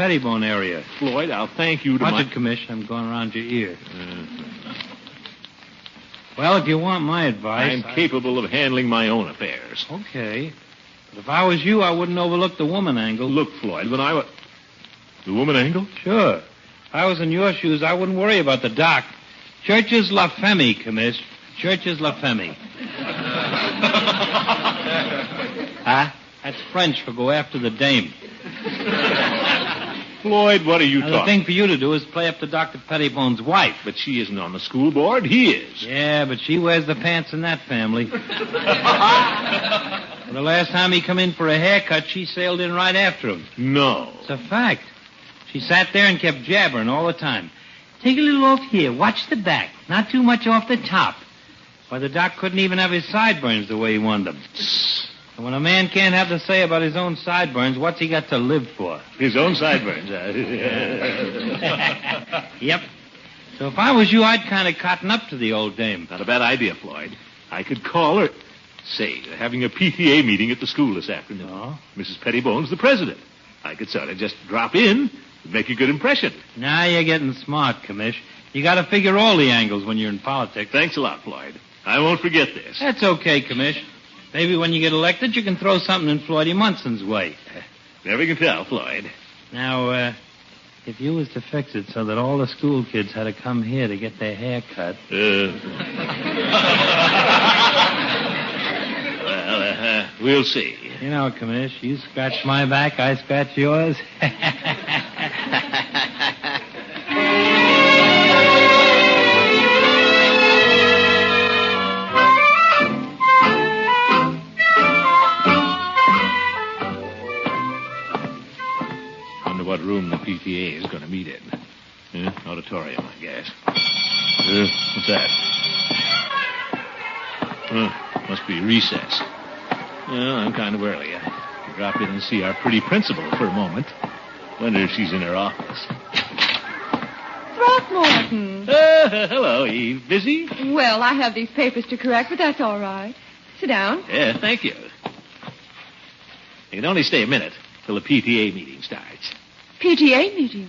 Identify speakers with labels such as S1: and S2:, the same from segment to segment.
S1: Pettibone area.
S2: Floyd, I'll thank you to
S1: Hunted
S2: my...
S1: commission, I'm going around your ear.
S2: Uh,
S1: Well, if you want my advice.
S2: I'm capable of handling my own affairs.
S1: I- Okay. But if I was you, I wouldn't overlook the woman angle.
S2: Look, Floyd, when I was... The woman angle?
S1: Sure. If I was in your shoes, I wouldn't worry about the doc. Church is La Femme, Commiss. Church is La Femme. huh? That's French for go after the dame.
S2: Floyd, what are you
S1: Now, the
S2: talking...
S1: thing for you to do is play up to Dr. Pettibone's wife.
S2: But she isn't on the school board. He is.
S1: Yeah, but she wears the pants in that family. Well, the last time he come in for a haircut, she sailed in right after him.
S2: No.
S1: It's a fact. She sat there and kept jabbering all the time. Take a little off here. Watch the back. Not too much off the top. Why, the doc couldn't even have his sideburns the way he wanted them. And when a man can't have to say about his own sideburns, what's he got to live for?
S2: His own sideburns. Not
S1: Yep. So if I was you, I'd kind of cotton up to the old dame.
S2: a bad idea, Floyd. I could call her. Say, they're having a PTA meeting at the school this afternoon.
S1: No.
S2: Mrs. Pettibone's the president. I could sort of just drop in, make a good impression.
S1: Now you're getting smart, Commish. You got to figure all the angles when you're in politics.
S2: Thanks a lot, Floyd. I won't forget this.
S1: That's okay, Commish. Maybe when you get elected, you can throw something in Floydie Munson's way.
S2: Never can tell, Floyd.
S1: Now, uh, if you was to fix it so that all the school kids had to come here to get their hair cut.
S2: Uh... well, uh, we'll see.
S1: You know, Commish, you scratch my back, I scratch yours.
S2: Wonder what room the PTA is going to meet in. Huh? Auditorium, I guess. Uh, what's that? Huh, must be recess. Well, I'm kind of early. I could drop in and see our pretty principal for a moment. Wonder if she's in her office.
S3: Throckmorton.
S2: Uh, hello, Eve. Busy?
S3: Well, I have these papers to correct, but that's all right. Sit down.
S2: Yeah, thank you. You can only stay a minute till the PTA meeting starts.
S3: PTA meeting.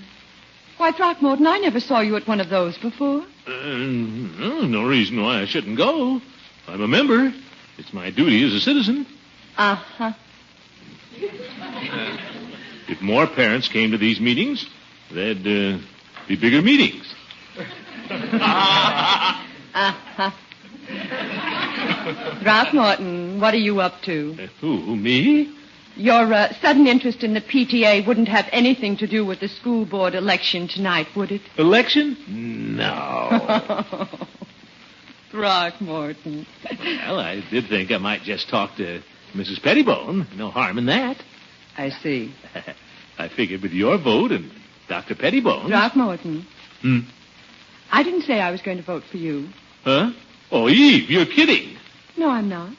S3: Why, Throckmorton, I never saw you at one of those before.
S2: Uh, no, no reason why I shouldn't go. I'm a member. It's my duty as a citizen.
S3: Uh-huh.
S2: If more parents came to these meetings, there'd uh, be bigger meetings.
S3: Uh-huh. Throckmorton, what are you up to?
S2: Uh, who, me?
S3: Your uh, sudden interest in the PTA wouldn't have anything to do with the school board election tonight, would it?
S2: Election? No.
S3: Throckmorton.
S2: well, I did think I might just talk to Mrs. Pettibone. No harm in that.
S3: I see.
S2: I figured with your vote and Dr. Pettibone.
S3: Throckmorton,
S2: Hmm.
S3: I didn't say I was going to vote for you.
S2: Huh? Oh, Eve, you're kidding.
S3: No, I'm not.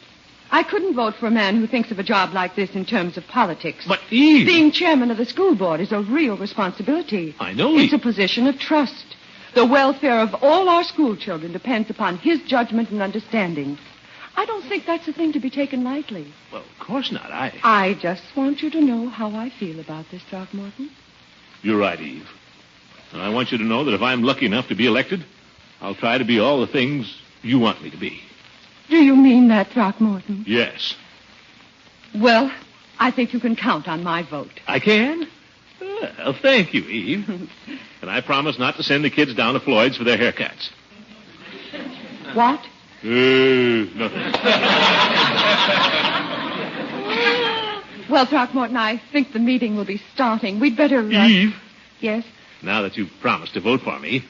S3: I couldn't vote for a man who thinks of a job like this in terms of politics.
S2: But Eve.
S3: Being chairman of the school board is a real responsibility.
S2: I know,
S3: It's a
S2: Eve.
S3: position of trust. The welfare of all our school children depends upon his judgment and understanding. I don't think that's a thing to be taken lightly.
S2: Well, of course not. I.
S3: I just want you to know how I feel about this, Throckmorton.
S2: You're right, Eve. And I want you to know that if I'm lucky enough to be elected, I'll try to be all the things you want me to be.
S3: Do you mean that, Throckmorton?
S2: Yes.
S3: Well, I think you can count on my vote.
S2: I can? Well, thank you, Eve. and I promise not to send the kids down to Floyd's for their haircuts.
S3: What?
S2: Uh, nothing.
S3: Well, Throckmorton, I think the meeting will be starting. We'd better. uh,
S2: Eve,
S3: Yes?
S2: now that you've promised to vote for me,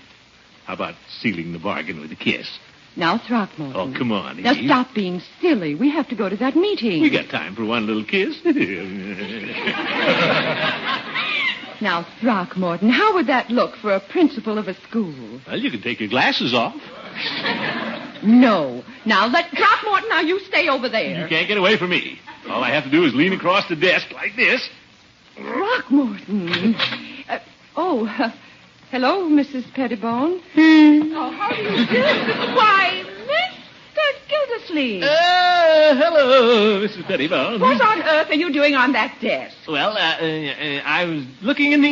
S2: how about sealing the bargain with a kiss?
S3: Now, Throckmorton.
S2: Oh, come on,
S3: Mm. Now,
S2: Eve.
S3: stop being silly. We have to go to that meeting.
S2: We got time for one little kiss.
S3: Now, Throckmorton, how would that look for a principal of a school?
S2: well, you can take your glasses off.
S3: No. Now, let Throckmorton, now you stay over
S2: You
S3: there.
S2: can't get away from me. All I have to do is lean across the desk like this.
S3: Throckmorton. Uh, oh, uh, hello, Mrs. Pettibone. Oh, how do you do? Why, Mr. Gildersleeve.
S2: Uh, hello, Mrs. Pettibone.
S3: what on earth are you doing on that desk?
S2: Well, uh, uh, uh, I was looking in the